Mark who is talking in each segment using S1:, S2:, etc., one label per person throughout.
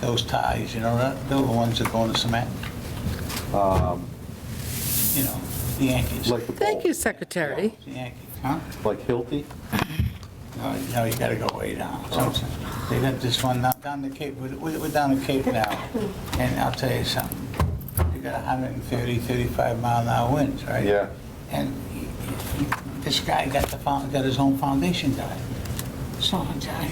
S1: those ties, you know, that- they're the ones that go in the cement,
S2: Um,
S1: you know, the Yankees.
S2: Like the
S3: Thank
S2: ball,
S3: you, Secretary.
S1: The Yankees, huh?
S2: like Hilti?
S1: No, you know, you gotta go way down. Something- They got this one down- down the Cape, we're we're down the Cape now, and I'll tell you something, you got 130, 35 mile an hour winds, right?
S2: Yeah.
S1: And he- he- this guy got the, found- got his own foundation done. So I-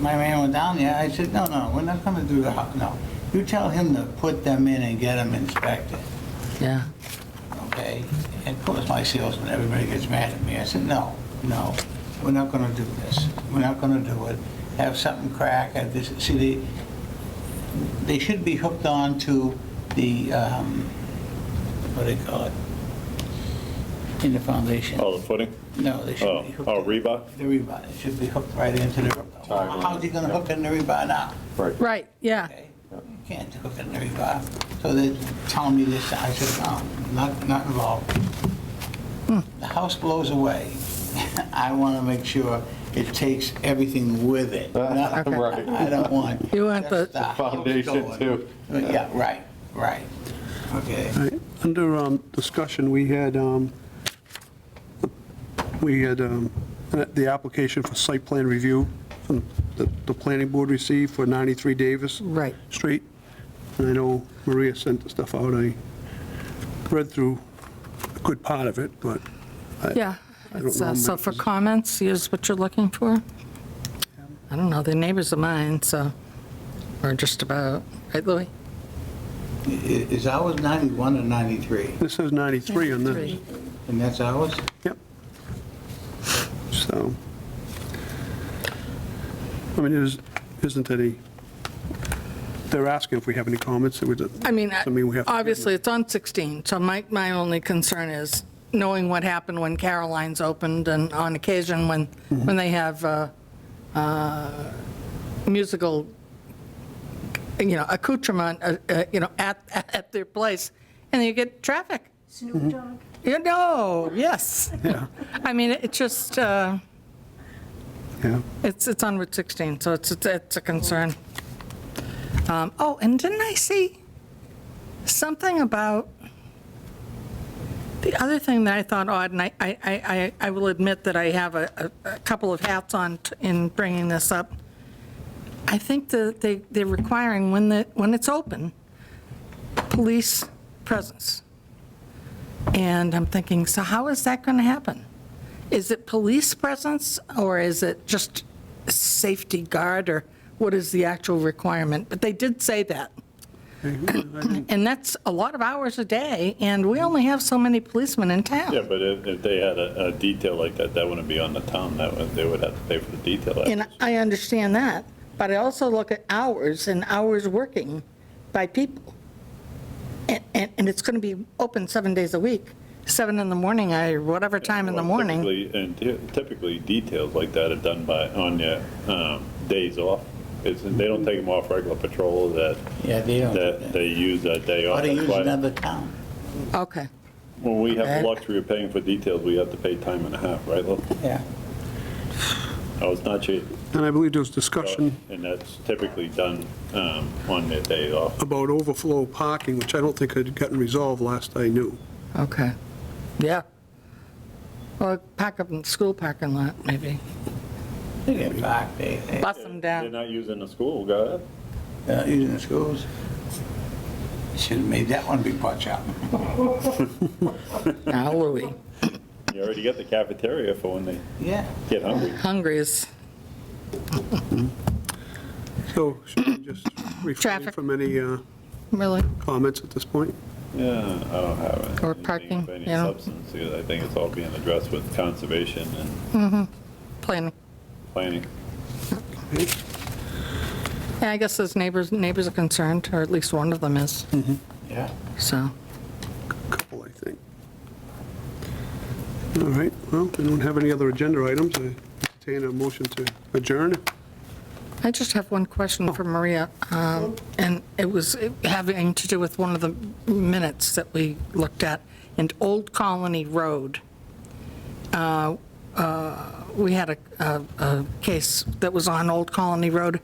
S1: my man went down there, I said, no, no, we're not gonna do the, hou- no. You tell him to put them in and get them inspected
S3: Yeah.
S1: okay? And of course, my salesman, everybody gets mad at me. I said, no, no, we're not gonna do this. We're not gonna do it. Have something crack at this, see, they, they should be hooked on to the, um, what do they call it? In the foundation.
S4: Oh, the footing?
S1: No, they should be hooked.
S4: Oh, oh, rebar?
S1: The rebar, it should be hooked right into the, rebar.
S2: Tie line.
S1: how's he gonna hook in the rebar now?
S2: Right.
S3: Right, yeah.
S1: okay? You can't hook it in every bar. So they're telling me this, I said, no, not, not involved. The house blows away. I want to make sure it takes everything with it. Not-
S3: Okay.
S2: Right.
S1: I don't want.
S3: You want
S1: just
S3: the-
S1: house
S2: Foundation,
S1: going.
S2: too.
S1: Yeah, right, right. Okay.
S5: All right, Under um, discussion, we had, um, we had um, the application for site plan review from the the planning board received for 93 Davis
S3: Right.
S5: Street. And I know Maria sent the stuff out. I read through a good part of it, but
S3: Yeah.
S5: I don't
S3: It's, uh,
S5: know,
S3: So
S5: Mike,
S3: for
S5: is-
S3: comments, here's what you're looking for? I don't know, they're neighbors of mine, so, or just about, right, Louis?
S1: I- Is ours 91 or 93?
S5: this says 93 on this.
S3: Three.
S1: And that's ours?
S5: Yep. So, I mean, is- isn't any, they're asking if we have any comments. it would-
S3: I mean, I-
S5: Something we have to-
S3: obviously, it's on 16, so my, my only concern is knowing what happened when Caroline's opened, and on occasion, when,
S5: Mm-hmm.
S3: when they have uh, uh, musical, you know, accoutrement, uh, uh, you know, at, at their place, and you get traffic.
S6: Snoop Dogg.
S3: You know, yes.
S5: Yeah,
S3: I mean, it just, uh,
S5: yeah.
S3: it's, it's on Route 16, so it's, it's- it's a concern. Um, Oh, and didn't I see something about, the other thing that I thought odd, and I, I, I, I will admit that I have a, a a couple of hats on t- in bringing this up. I think that they, they're requiring when the, when it's open, police presence. And I'm thinking, so how is that going to happen? Is it police presence, or is it just safety guard, or what is the actual requirement? But they did say that, and that's a lot of hours a day, and we only have so many policemen in
S4: Yeah,
S3: town.
S4: but if, if they had a, a detail like that, that wouldn't be on the town, that would, they would have to pay for the detail.
S3: And I understand that, but I also look at hours and hours working by people. And, and and it's going to be open seven days a week, seven in the morning, I, whatever time in the
S4: Well,
S3: morning.
S4: typically- And ty- typically, details like that are done by, on your, um, days off. It's, they don't take them off regular patrol that,
S1: Yeah, they don't.
S4: that they use that day off.
S1: Ought to
S4: That's
S1: use
S4: why
S1: another town.
S3: Okay.
S4: When we have
S3: Okay.
S4: the luxury of paying for details, we have to pay time and a half, right, Lou?
S1: Yeah.
S4: Oh, it's not cheap.
S5: And I believe there was discussion
S4: And that's typically done, um, on their day off.
S5: about overflow parking, which I don't think had gotten resolved last I knew.
S3: Okay, yeah. Or pack up in the school parking lot, maybe.
S1: They get back, they, they-
S3: Bust them
S4: They're
S3: down.
S4: not using the school, go ahead.
S1: they're not using the schools. Should have made that one be watch out.
S3: Now, Louis,
S4: You already got the cafeteria for when they
S1: Yeah.
S4: get hungry.
S3: hungry is,
S5: So should we just refrain
S3: Traffic.
S5: from any uh,
S3: really,
S5: comments at this point?
S4: Yeah, I don't have it.
S3: Or
S4: anything
S3: parking,
S4: of any
S3: you know.
S4: substance, because I think it's all being addressed with conservation and
S3: planning.
S4: planning.
S3: Yeah, I guess those neighbors, neighbors are concerned, or at least one of them is,
S1: Yeah.
S3: so.
S5: Couple, I think. All right, well, we don't have any other agenda items. I entertain a motion to adjourn.
S3: I just have one question for Maria, um, and it was having to do with one of the minutes that we looked at, in Old Colony Road. Uh, uh, We had a- a a case that was on Old Colony Road